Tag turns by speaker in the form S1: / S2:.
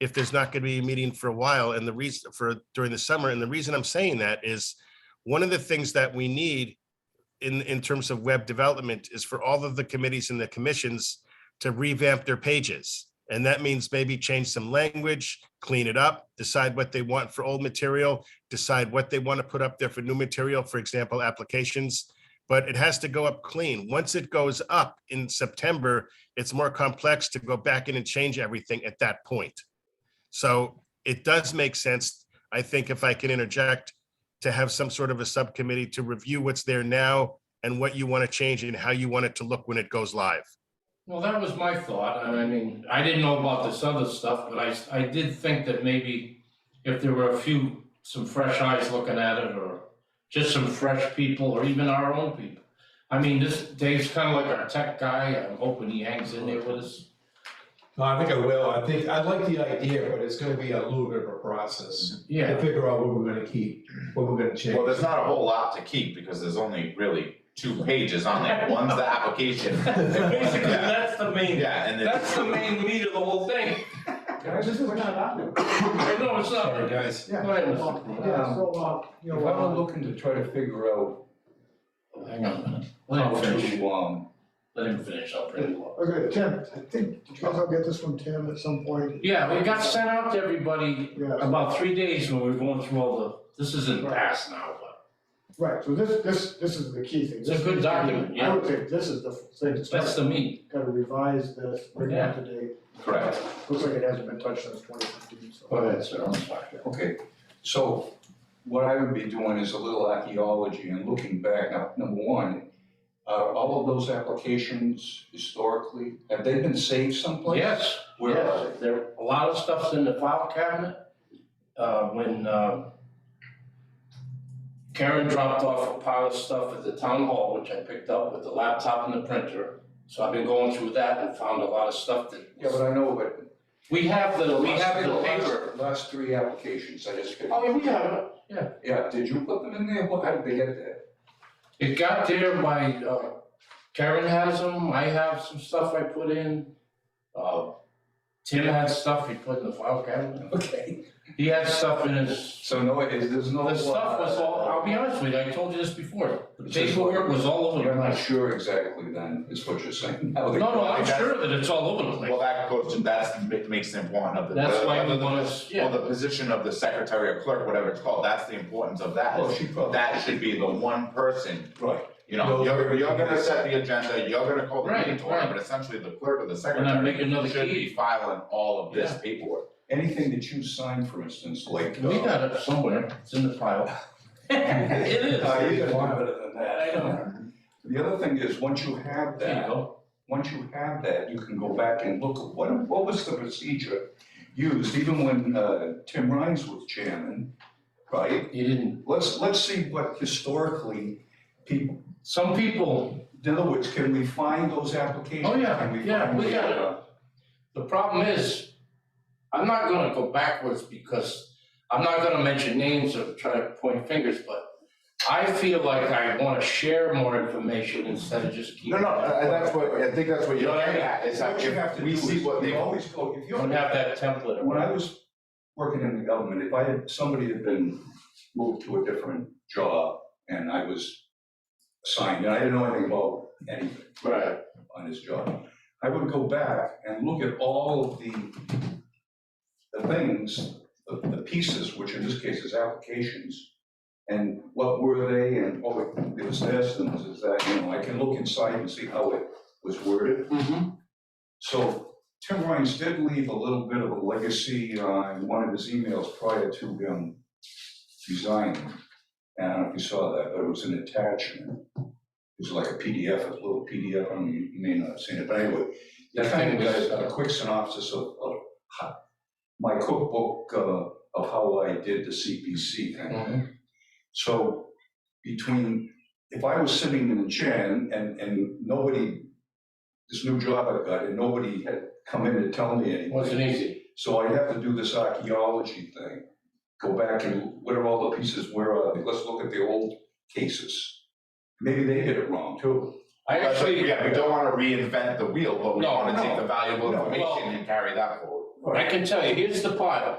S1: if there's not going to be a meeting for a while and the reason for during the summer, and the reason I'm saying that is one of the things that we need in, in terms of web development is for all of the committees and the commissions to revamp their pages. And that means maybe change some language, clean it up, decide what they want for old material, decide what they want to put up there for new material, for example, applications. But it has to go up clean. Once it goes up in September, it's more complex to go back in and change everything at that point. So it does make sense, I think, if I can interject, to have some sort of a subcommittee to review what's there now and what you want to change and how you want it to look when it goes live.
S2: Well, that was my thought, and I mean, I didn't know about this other stuff, but I, I did think that maybe if there were a few, some fresh eyes looking at it, or just some fresh people, or even our own people. I mean, this, Dave's kind of like our tech guy, I'm hoping he hangs in there with us.
S3: No, I think I will. I think, I like the idea, but it's gonna be a little bit of a process to
S2: Yeah,
S3: figure out what we're gonna keep, what we're gonna change.
S4: Well, there's not a whole lot to keep because there's only really two pages on there. One's the application.
S2: basically,
S4: Yeah,
S2: that's the main,
S4: yeah, and then,
S2: that's the main meat of the whole thing.
S3: Can I just, we're not on there.
S2: I know it's not,
S3: Sorry, guys.
S2: Go ahead, Mr. Crowe.
S3: Yeah, so, uh, you
S5: If
S3: know,
S5: I'm looking to try to figure out
S2: Hang on a minute, let
S5: how
S2: him finish,
S5: to, um,
S2: let him finish, I'll bring him up.
S6: Okay, Tim, I think, did you guys all get this from Tim at some point?
S2: Yeah, we got sent out to everybody
S6: Yeah,
S2: about three days when we were going through all the, this is in the past now, but
S6: right, so this, this, this is the key thing.
S2: It's a good document, yeah.
S6: I would say this is the thing that's
S2: that's
S6: gotta,
S2: the meat.
S6: gotta revise this, bring it up to date.
S4: correct.
S6: Looks like it hasn't been touched since twenty fifteen, so.
S2: sir, I'm sorry.
S5: Okay, so what I would be doing is a little archaeology and looking back, Now, number one, are all of those applications historically, have they been saved someplace?
S2: Yes,
S5: Where are they?
S2: yes, uh, there, a lot of stuff's in the file cabinet. Uh, when, uh, Karen dropped off a pile of stuff at the town hall, which I picked up with the laptop and the printer. So I've been going through that and found a lot of stuff
S5: Yeah,
S2: that,
S5: but I know, but.
S2: we have the, we have the
S5: last-
S2: paper.
S5: Last three applications, I just,
S2: Oh, yeah, we have it.
S5: yeah, did you put them in there? What, how did they get there?
S2: It got there by, uh, Karen has them, I have some stuff I put in, uh, Tim had stuff he put in the file cabinet.
S5: Okay.
S2: He had stuff in his,
S5: So no, it is, there's no.
S2: the stuff was all, I'll be
S5: uh,
S2: honest with you, I told you this before, the paperwork was all over the
S5: You're not
S2: place.
S5: sure exactly then, is what you're saying?
S2: No, no, I'm sure that it's all over the
S4: Well,
S2: place,
S4: that goes to, that's, ma- makes the important of the.
S2: that's why we
S4: the-
S2: want to,
S4: Well,
S2: yeah,
S4: the position of the secretary or clerk, whatever it's called, that's the importance of that.
S5: Oh, she probably.
S4: That should be the one person,
S5: Right.
S4: you know,
S5: No,
S4: you're, you're
S5: everything
S4: gonna
S5: is-
S4: set the agenda, you're gonna call the
S2: Right,
S4: meeting to order,
S2: right.
S4: but essentially the clerk or the
S2: and I make
S4: secretary
S2: another
S4: should be
S2: key.
S4: filing all of this
S2: Yeah.
S4: paperwork.
S5: anything that you sign, for instance, like. uh,
S2: We got it somewhere, it's in the file. It is,
S5: Uh,
S2: there
S5: you gotta do better than that.
S2: I know.
S5: The other thing is, once you have
S2: you
S5: that,
S2: go,
S5: once you have that, you can go back and look, at what, what was the procedure used, even when, uh, Tim Rhines was chairman, right?
S2: you didn't,
S5: Let's, let's see what historically people,
S2: some people
S5: in other words, can we find those applications?
S2: Oh, yeah,
S5: Can
S2: yeah,
S5: find
S2: we
S5: the,
S2: got it.
S5: uh,
S2: The problem is, I'm not gonna go backwards because I'm not gonna mention names or try to point fingers, but I feel like I wanna share more information instead of just keep.
S4: No, no, I- I- that's what, I think that's what you're
S2: Yeah,
S4: getting at, is that
S5: What you have
S4: if
S5: to
S4: we
S5: do is
S4: see what
S5: you
S4: they.
S5: Always go, if
S2: You
S5: you're.
S2: don't have that template.
S5: When I was working in the government, if I had, somebody had been moved to a different job and I was assigned, and I didn't know anything about anything
S2: Right.
S5: on his job, I would go back and look at all of the, the things, the, the pieces, which in this case is applications, and what were they, and, oh, it- it was this, and this is that, you know, I can look inside and see how it was worded.
S2: Mm-hmm.
S5: So Tim Rhines did leave a little bit of a legacy uh, in one of his emails prior to him resigning. And I don't know if you saw that, but it was an attachment. It was like a PDF, a little PDF, I mean, you may not have seen it, but anyway. That kind of does a quick synopsis of, of how- my cookbook uh, of how I did the CPC thing.
S4: Mm-hmm.
S5: So between, if I was sitting in a chair and, and, and nobody, this new job I got, and nobody had come in to tell me anything.
S2: Wasn't easy.
S5: So I'd have to do this archaeology thing, go back and what are all the pieces, where are they, let's look at the old cases. Maybe they did it wrong too.
S2: I
S4: That's what-
S2: actually,
S4: yeah, we don't wanna reinvent the wheel, but we
S2: No,
S4: wanna take
S5: no,
S4: the valuable
S5: no,
S2: well-
S4: information and carry that forward.
S2: I can tell you, here's the part,